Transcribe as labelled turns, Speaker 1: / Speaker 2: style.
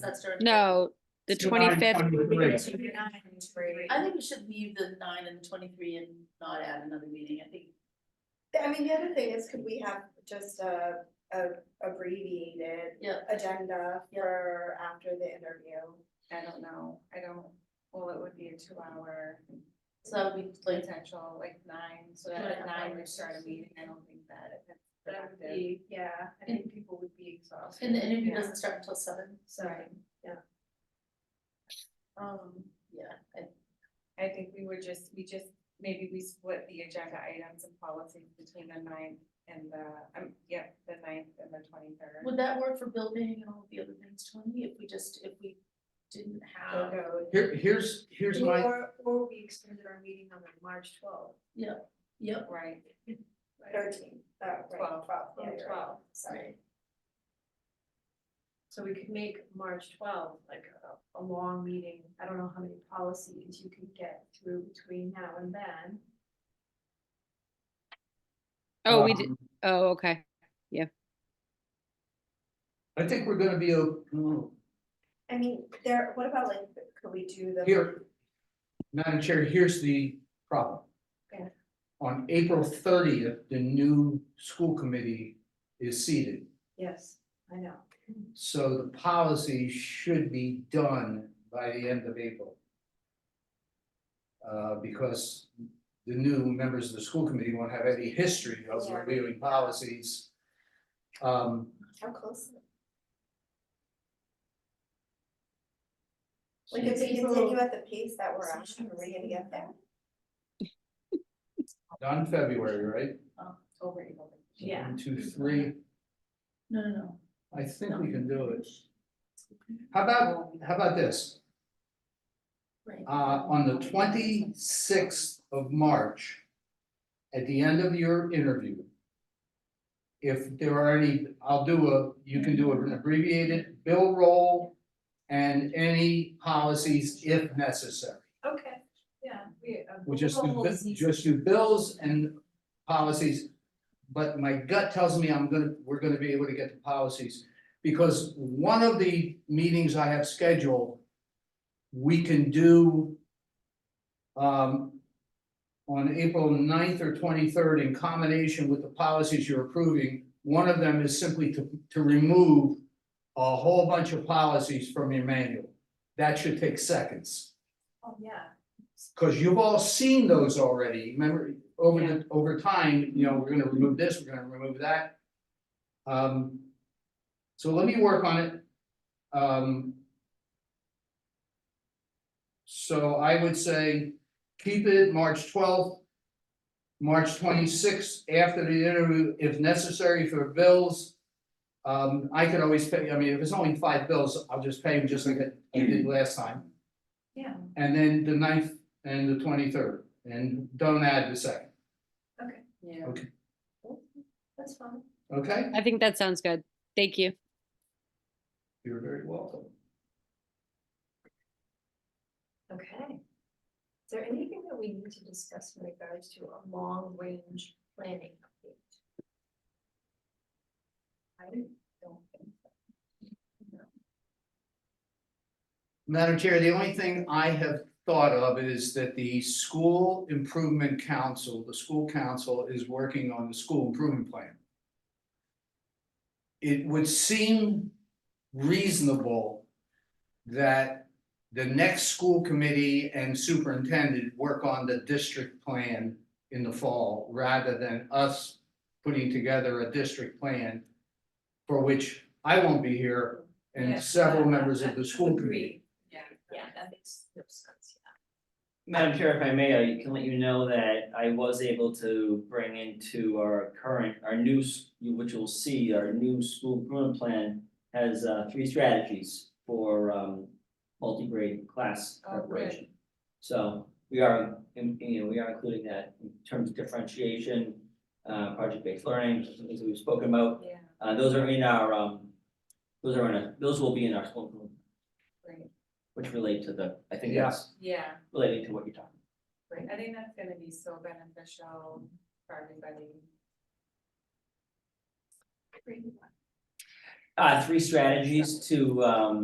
Speaker 1: That's during.
Speaker 2: No, the
Speaker 3: So
Speaker 2: twenty-fifth,
Speaker 3: I'm- I'm with Ray.
Speaker 1: I think we should leave the nine and the twenty-three and not add another meeting, I think.
Speaker 4: I mean, the other thing is, could we have just a, a abbreviated
Speaker 1: Yeah.
Speaker 4: agenda
Speaker 1: Yeah.
Speaker 4: for after the interview? I don't know, I don't, well, it would be a two hour
Speaker 1: So that would be like,
Speaker 4: potential, like nine, so
Speaker 1: that at nine
Speaker 4: we start a meeting, I don't think that. That would
Speaker 1: productive.
Speaker 4: be, yeah, I think people would be exhausted.
Speaker 1: and the interview
Speaker 4: Yeah.
Speaker 1: doesn't start until seven,
Speaker 4: So
Speaker 1: um, yeah, I,
Speaker 4: I think we were just, we just, maybe we split the agenda items and policies between the ninth and the, um, yep, the ninth and the twenty third.
Speaker 1: would that work for building and all the other things, Tony, if we just, if we didn't have?
Speaker 3: Here, here's, here's my,
Speaker 5: Or, or we extended our meeting on like March twelfth.
Speaker 1: Yep,
Speaker 4: Right.
Speaker 5: Thirteen.
Speaker 4: Oh, right,
Speaker 5: Twelve.
Speaker 4: yeah,
Speaker 5: Yeah,
Speaker 4: you're right.
Speaker 5: twelve.
Speaker 1: sorry,
Speaker 5: So we could make March twelfth like a, a long meeting. I don't know how many policies you could get through between now and then.
Speaker 2: oh, we did,
Speaker 3: um,
Speaker 2: oh, okay.
Speaker 3: I think we're gonna be, o- oh,
Speaker 4: I mean, there, what about like, could we do the?
Speaker 3: here. Madam Chair, here's the problem.
Speaker 4: Okay.
Speaker 3: On April thirtieth, the new school committee is seated,
Speaker 5: Yes, I know.
Speaker 4: Mm-hmm.
Speaker 3: so the policy should be done by the end of April. Uh, because the new members of the school committee won't have any history of
Speaker 4: Yeah.
Speaker 3: reviewing policies. Um,
Speaker 4: How close? Like if we
Speaker 5: People-
Speaker 4: continue at the pace that we're at, are we gonna get there?
Speaker 3: done February, right?
Speaker 1: over April.
Speaker 5: Yeah.
Speaker 3: One, Two, three,
Speaker 1: No, no, no.
Speaker 3: I think we can do it. How about, how about this?
Speaker 1: Right.
Speaker 3: Uh, on the twenty-sixth of March, at the end of your interview, if there are any, I'll do a, you can do an abbreviated bill roll and any policies if necessary.
Speaker 5: Okay, yeah, we. uh,
Speaker 3: We just do,
Speaker 5: we'll-
Speaker 3: bi- just do bills and policies. But my gut tells me I'm gonna, we're gonna be able to get the policies, because one of the meetings I have scheduled. We can do. Um. On April 9th or twenty-third, in combination with the policies you're approving, one of them is simply to, to remove. A whole bunch of policies from your manual. That should take seconds.
Speaker 5: Oh, yeah.
Speaker 3: Cause you've all seen those already, remember, over the, over time, you know, we're gonna remove this, we're gonna remove that. Um. So let me work on it. Um. So I would say, keep it March twelfth. March twenty-sixth, after the interview, if necessary for bills. Um, I could always pay, I mean, if it's only five bills, I'll just pay them just like I did last time.
Speaker 5: Yeah.
Speaker 3: And then the ninth and the twenty-third, and don't add the second,
Speaker 1: Yeah.
Speaker 5: That's fine.
Speaker 3: okay?
Speaker 2: I think that sounds good. Thank you.
Speaker 3: You're very welcome.
Speaker 5: Okay. Is there anything that we need to discuss in regards to a long range planning update? I don't think
Speaker 3: Madam Chair, the only thing I have thought of is that the School Improvement Council, the school council is working on the school improvement plan. It would seem reasonable that the next school committee and superintendent work on the district plan in the fall, rather than us putting together a district plan for which I won't be here and
Speaker 5: Yes,
Speaker 3: several
Speaker 5: I-
Speaker 3: members
Speaker 5: I-
Speaker 3: of the
Speaker 5: I
Speaker 3: school
Speaker 5: agree.
Speaker 3: committee.
Speaker 5: Yeah, yeah, that makes no sense,
Speaker 6: Madam Chair, if I may, I can let you know that I was able to bring into our current, our new, s- which you'll see, our new school improvement plan has uh three strategies for um multi-grade class
Speaker 5: Oh, good.
Speaker 6: preparation. So we are, in- you know, we are including that in terms of differentiation, uh project-based learning, some things that we've spoken about.
Speaker 5: yeah. Yeah,
Speaker 6: Uh those are in our um, those are in, a- those will be in our school improvement,
Speaker 5: great,
Speaker 6: which relate to the, I think
Speaker 3: Yeah.
Speaker 6: that's
Speaker 4: Yeah,
Speaker 6: relating to what you're talking about.
Speaker 4: right, I think that's gonna be so beneficial for everybody.
Speaker 5: great.
Speaker 6: Uh, three strategies to, um,